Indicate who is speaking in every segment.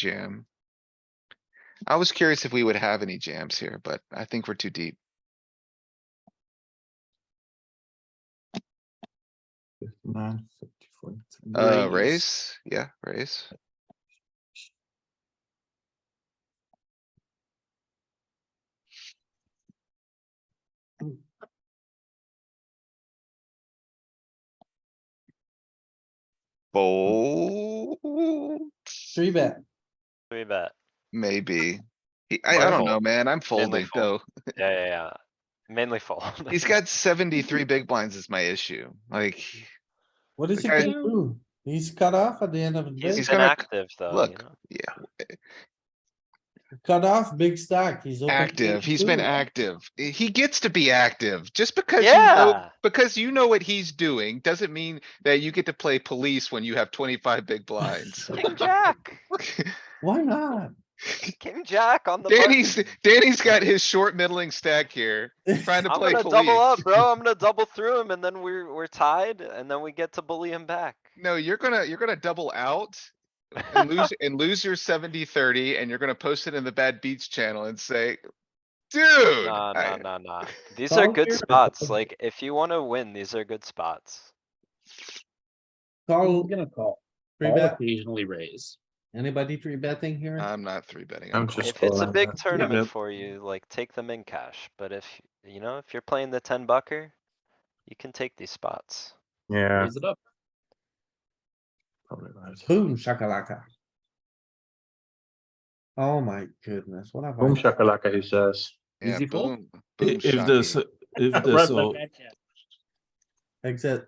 Speaker 1: jam. I was curious if we would have any jams here, but I think we're too deep.
Speaker 2: Nine, fifty, forty-three.
Speaker 1: Uh, raise, yeah, raise. Fold,
Speaker 3: Three bet.
Speaker 4: Three bet.
Speaker 1: maybe. He- I, I don't know,
Speaker 4: Fold.
Speaker 1: man. I'm folding though.
Speaker 4: fold. Yeah, yeah, yeah. Mainly fold.
Speaker 1: He's got seventy-three big blinds is my issue. Like,
Speaker 3: What is he
Speaker 1: Okay.
Speaker 3: gonna do? He's cut off at the end of the day.
Speaker 1: he's
Speaker 4: He's
Speaker 1: gonna-
Speaker 4: inactive though, you
Speaker 1: look,
Speaker 4: know?
Speaker 3: Cut off big stack. He's. open
Speaker 1: active.
Speaker 3: to
Speaker 1: He's been
Speaker 3: two.
Speaker 1: active. I- He gets to be active. Just because you know,
Speaker 4: Yeah,
Speaker 1: because you know what he's doing doesn't mean that you get to play police when you have twenty-five big blinds.
Speaker 4: king jack,
Speaker 3: Why not?
Speaker 4: king jack on the.
Speaker 1: Danny's,
Speaker 4: button.
Speaker 1: Danny's got his short middling stack here, trying to
Speaker 4: I'm
Speaker 1: play
Speaker 4: gonna double
Speaker 1: police.
Speaker 4: up, bro. I'm gonna double through him and then we're, we're tied and then we get to bully him back.
Speaker 1: No, you're gonna, you're gonna double out and lose, and lose your 70-30, and you're gonna post it in the bad beats channel and say, dude.
Speaker 4: Nah,
Speaker 1: I-
Speaker 4: nah, nah, nah. These are
Speaker 3: Call
Speaker 4: good
Speaker 3: here.
Speaker 4: spots. Like, if you wanna win, these are good spots.
Speaker 3: Call,
Speaker 5: I'm gonna call.
Speaker 3: three
Speaker 5: I'll
Speaker 3: bet.
Speaker 5: Occasionally raise.
Speaker 3: Anybody three betting here?
Speaker 1: I'm not three betting.
Speaker 2: I'm
Speaker 1: I'm cold.
Speaker 2: just-
Speaker 4: If it's a
Speaker 2: calling
Speaker 4: big
Speaker 2: that. Yeah,
Speaker 4: tournament
Speaker 2: nope.
Speaker 4: for you, like, take them in cash, but if, you know, if you're playing the ten bucker, you can take these spots.
Speaker 2: Yeah,
Speaker 5: Raise it up.
Speaker 2: probably right.
Speaker 3: Boom shakalaka. Oh my goodness, what have
Speaker 2: Boom
Speaker 3: I?
Speaker 2: shakalaka, uh, he says.
Speaker 1: Yeah,
Speaker 5: Easy fold?
Speaker 1: boom,
Speaker 6: I-
Speaker 1: boom,
Speaker 6: If this,
Speaker 1: shocking.
Speaker 6: if
Speaker 2: Right
Speaker 6: this, all,
Speaker 2: back
Speaker 3: Exit,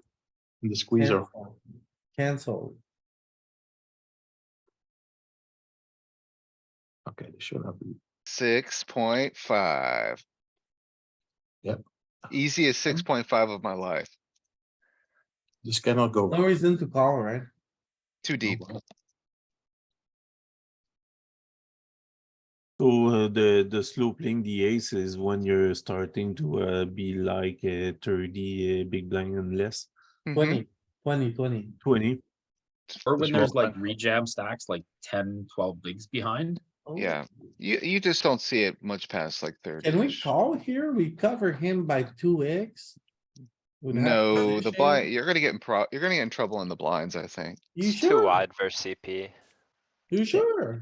Speaker 2: The squeezer.
Speaker 3: Cancel. cancel.
Speaker 2: Okay, this should not be.
Speaker 1: Six point five.
Speaker 2: Yep.
Speaker 1: Easiest six point five of my life.
Speaker 2: This cannot go.
Speaker 3: No reason to call, right?
Speaker 1: Mm-hmm. Too deep.
Speaker 6: so uh, the, the slow playing the ace is when you're starting to uh, be like uh, thirty uh, big blind and less,
Speaker 1: Mhm.
Speaker 3: Twenty, twenty, twenty.
Speaker 6: twenty.
Speaker 5: Or when
Speaker 2: Small
Speaker 5: there's like
Speaker 2: blind.
Speaker 5: rejam stacks, like 10, 12 bigs behind.
Speaker 3: Oh,
Speaker 1: Yeah, you, you just don't see it much past like thirty.
Speaker 3: Can we call here? We cover him by two X? Would have
Speaker 1: No, the
Speaker 3: position?
Speaker 1: blind, you're gonna get in pro, you're gonna get in trouble in the blinds, I think.
Speaker 3: You
Speaker 4: It's too
Speaker 3: sure?
Speaker 4: wide versus CP.
Speaker 3: You sure?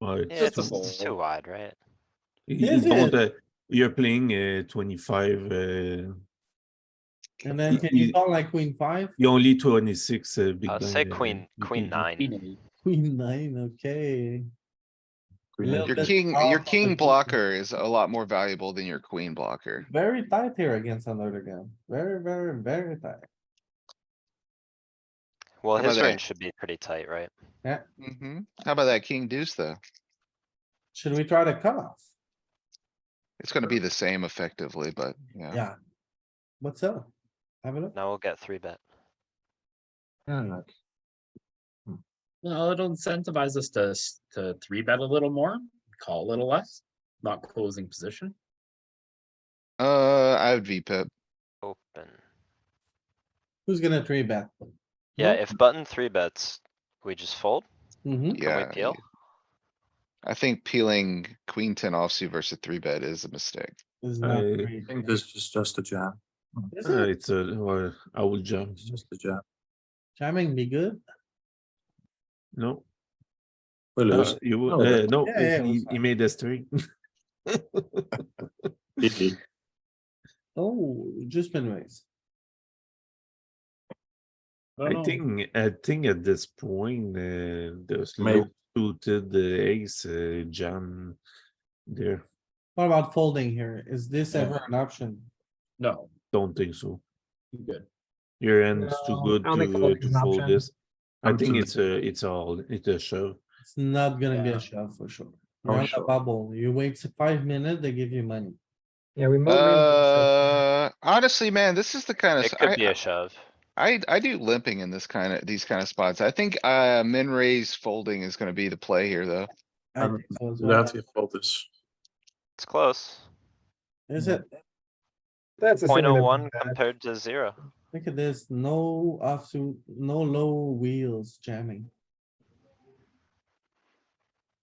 Speaker 6: Well,
Speaker 4: Yeah,
Speaker 5: It's a
Speaker 4: it's, it's too
Speaker 5: fold.
Speaker 4: wide, right?
Speaker 6: you
Speaker 3: Is
Speaker 6: don't,
Speaker 3: it?
Speaker 6: uh, You're playing uh, twenty-five, uh,
Speaker 3: And then can you call like queen five,
Speaker 6: you only twenty-six uh, big
Speaker 4: Uh,
Speaker 6: blind.
Speaker 4: say
Speaker 6: uh,
Speaker 4: queen,
Speaker 6: you
Speaker 4: queen
Speaker 6: think.
Speaker 4: nine.
Speaker 5: Queen eight.
Speaker 3: queen nine, okay?
Speaker 2: Queen
Speaker 3: Little
Speaker 2: eight.
Speaker 1: Your
Speaker 3: bit
Speaker 1: king,
Speaker 3: off
Speaker 1: your
Speaker 3: of
Speaker 1: king
Speaker 3: the-
Speaker 1: blocker is a lot more valuable than your queen blocker.
Speaker 3: Very tight here against another gun. Very, very, very tight.
Speaker 4: Well,
Speaker 1: How about
Speaker 4: his
Speaker 1: that?
Speaker 4: range should be pretty tight, right?
Speaker 1: Mhm. How about that king deuce though?
Speaker 3: Should we try to cut off?
Speaker 1: It's gonna be the same effectively, but yeah.
Speaker 3: Yeah. What's up? Have a look.
Speaker 4: Now we'll get three bet.
Speaker 2: Yeah, like,
Speaker 5: Well, it'll incentivize us to, s- to three bet a little more, call a little less, not closing position.
Speaker 1: Uh, I would V pip.
Speaker 4: Open.
Speaker 3: Who's gonna three bet?
Speaker 4: Yeah,
Speaker 3: Nope.
Speaker 4: if button three bets, we just fold.
Speaker 3: Mhm.
Speaker 4: Can
Speaker 1: Yeah.
Speaker 4: we peel?
Speaker 1: I think peeling queen ten offsuit versus three bet is a mistake.
Speaker 3: It's not
Speaker 6: I
Speaker 3: three.
Speaker 2: I think this is just a jam.
Speaker 3: Is
Speaker 6: Uh,
Speaker 3: it
Speaker 6: It's a, well, I will jump,
Speaker 2: It's just a jam.
Speaker 3: jamming be good?
Speaker 6: no,
Speaker 2: We
Speaker 6: uh,
Speaker 2: lose.
Speaker 6: you,
Speaker 2: No,
Speaker 6: will- uh,
Speaker 2: but-
Speaker 6: no,
Speaker 3: Oh, Yeah, yeah, it was
Speaker 6: he, he
Speaker 3: fine.
Speaker 6: made a three.
Speaker 2: GG.
Speaker 3: Oh, just been raised.
Speaker 5: don't
Speaker 6: I
Speaker 5: know.
Speaker 6: think, I think at this point, uh, the
Speaker 2: Maybe.
Speaker 6: slow suited the ace, uh, jam there,
Speaker 3: What about folding here? Is this ever an option?
Speaker 5: No,
Speaker 6: don't think so.
Speaker 5: you good.
Speaker 6: Your end's too
Speaker 5: No,
Speaker 6: good
Speaker 5: I don't think
Speaker 6: to,
Speaker 5: folding
Speaker 6: to
Speaker 5: is an
Speaker 6: fold
Speaker 5: option.
Speaker 6: this. I
Speaker 2: I'm
Speaker 6: think
Speaker 2: too-
Speaker 6: it's a, it's all, it's a shove.
Speaker 3: It's not gonna be
Speaker 5: Yeah.
Speaker 3: a shove for sure.
Speaker 2: For
Speaker 3: You're on a
Speaker 2: sure.
Speaker 3: bubble. You wait five minutes, they give you money.
Speaker 5: Yeah, we
Speaker 1: Uh, honestly, man, this is the kind of,
Speaker 4: It
Speaker 1: s-
Speaker 4: could
Speaker 1: I-
Speaker 4: be a shove.
Speaker 1: I, I do limping in this kind of, these kind of spots. I think, uh, min raise folding is gonna be the play here, though.
Speaker 3: I
Speaker 2: Um,
Speaker 3: think so as well.
Speaker 2: That's your fault is.
Speaker 4: It's close.
Speaker 3: Is it?
Speaker 5: That's
Speaker 4: Point oh one compared to zero.
Speaker 3: Look at this, no offsuit, no low wheels jamming.